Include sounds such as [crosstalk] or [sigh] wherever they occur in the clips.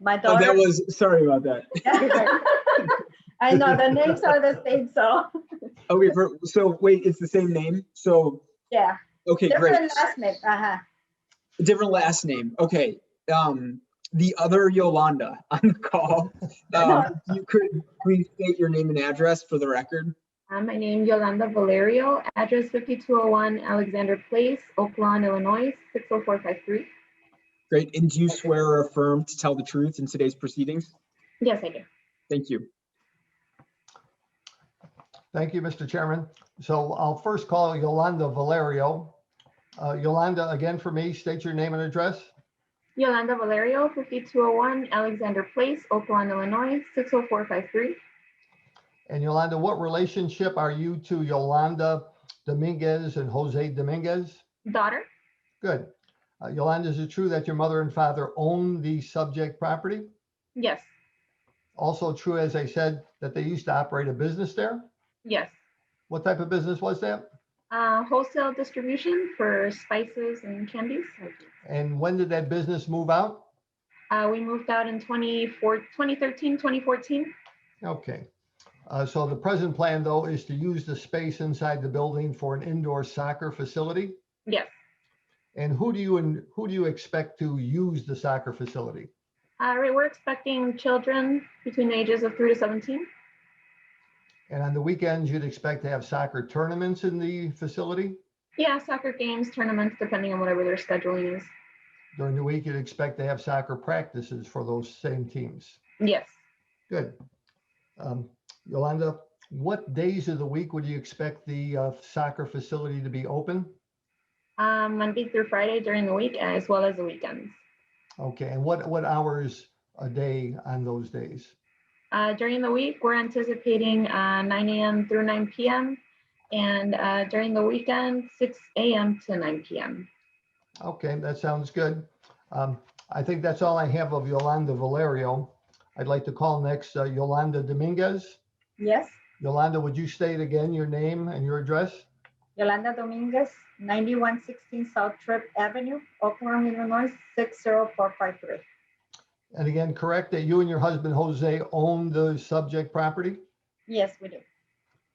My Oh, that daughter, was, sorry about that. [laughs] I know, the names are the same, so, Okay, for- so wait, it's the same name? So, yeah, okay, [laughs] great. different last name, uh-huh. Different last name. Okay. Um, the other Yolanda [laughs] on [laughs] the call. Um, you could please state your name and address for the record. Uh, My name Yolanda Valerio, address 5201 Alexander Place, Oaklawn, Illinois, 60453. Great. And do you swear or affirm to tell the truth in today's proceedings? Yes, I do. Thank you. Thank you, Mr. Chairman. So I'll first call Yolanda Valerio. Uh, Yolanda, again for me, state your name and address. Yolanda Valerio, 5201 Alexander Place, Oaklawn, Illinois, 60453. And Yolanda, what relationship are you to Yolanda Dominguez and Jose Dominguez? Daughter? Good. Uh, Yolanda, is it true that your mother and father own the subject property? Yes, Also true, as I said, that they used to operate a business there? yes. What type of business was that? Uh, Wholesale distribution for spices and candies. And when did that business move out? Uh, We moved out in 24 2013, 2014. Okay. Uh, So the present plan, though, is to use the space inside the building for an indoor soccer facility? Yes. And who do you, and who do you expect to use the soccer facility? All Uh, right, we're expecting children between the ages of 3 to 17. And on the weekends, you'd expect to have soccer tournaments in the facility? Yeah, soccer games, tournaments, depending on whatever their scheduling is. During the week, you'd expect to have soccer practices for those same teams? Yes. Good. Um, Yolanda, what days of the week would you expect the uh, soccer facility to be open? Um, Monday through Friday during the week as well as the weekends. Okay, and what, what hours a day on those days? Uh, during the week, we're anticipating uh, 9 a.m. through 9 p.m. And uh, during the weekend, 6 a.m. to 9 p.m. Okay, that sounds good. Um, I think that's all I have of Yolanda Valerio. I'd like to call next uh, Yolanda Dominguez. Yes, Yolanda, would you state again your name and your address? Yolanda Dominguez, ninety-one sixteen South Trip Avenue, Oakland, Illinois, six zero four five three. And again, correct that you and your husband Jose own the subject property? Yes, we do.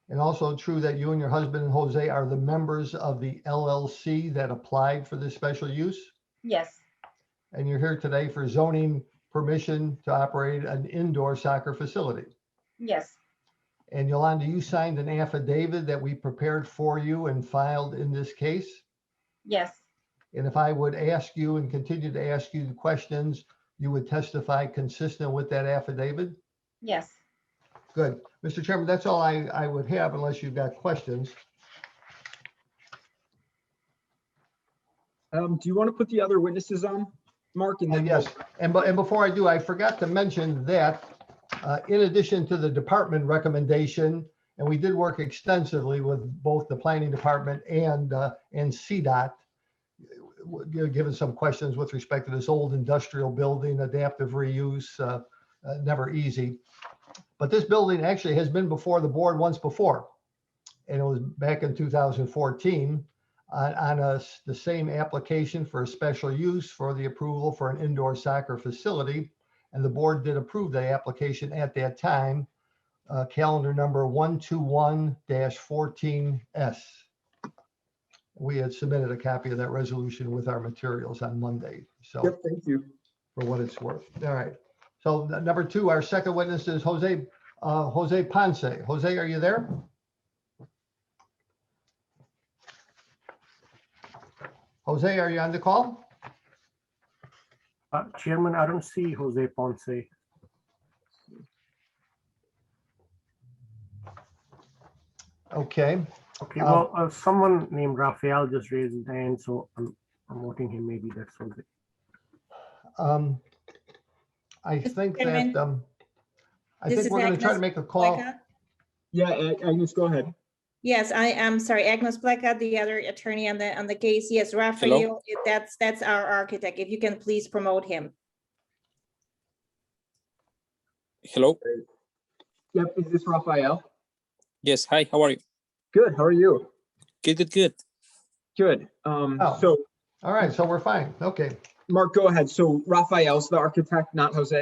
And also true that you and your husband Jose are the members of the LLC that applied for this special use? Yes, And you're here today for zoning permission to operate an indoor soccer facility? yes, And Yolanda, you signed an affidavit that we prepared for you and filed in this case. yes, And if I would ask you and continue to ask you the questions, you would testify consistent with that affidavit? yes. Good. Mr. Chairman, that's all I, I would have unless you've got questions. Um, do you want to put the other witnesses on, Mark? And And then yes, and, but, and before I do, I forgot to mention that uh, in addition to the department recommendation, and we did work extensively with both the planning department and, uh, and CDOT, w- you know, given some questions with respect to this old industrial building, adaptive reuse, uh, uh, never easy. But this building actually has been before the board once before. And it was back in 2014 on, on us, the same application for a special use for the approval for an indoor soccer facility. And the board did approve that application at that time, uh, calendar number 121-14S. We had submitted a copy of that resolution with our materials on Monday, so Yep, thank you. for what it's worth. All right. So n- number two, our second witness is Jose, uh, Jose Ponce. Jose, are you there? Jose, are you on the call? Uh, Chairman, I don't see Jose Ponce. Okay, Okay, Uh, well, uh, someone named Rafael just raised his hand, so I'm, I'm voting him. Maybe that's Jose. um, I think that, Chairman, um, I this think is we're gonna try to Agnes make a call. Pleca. Yeah, Ag- Agnes, go ahead. Yes, I am sorry, Agnes Pleca, the other attorney on the, on the case. Yes, Raphael, if that's, that's our architect. If you can please promote him. Hello. Yep, is this Raphael? Yes. Hi. How are you? Good, how are you? Good. Good. Good. Good. Um, Oh. so, All right, so we're fine. Okay. Mark, go ahead. So Raphael's the architect, not Jose?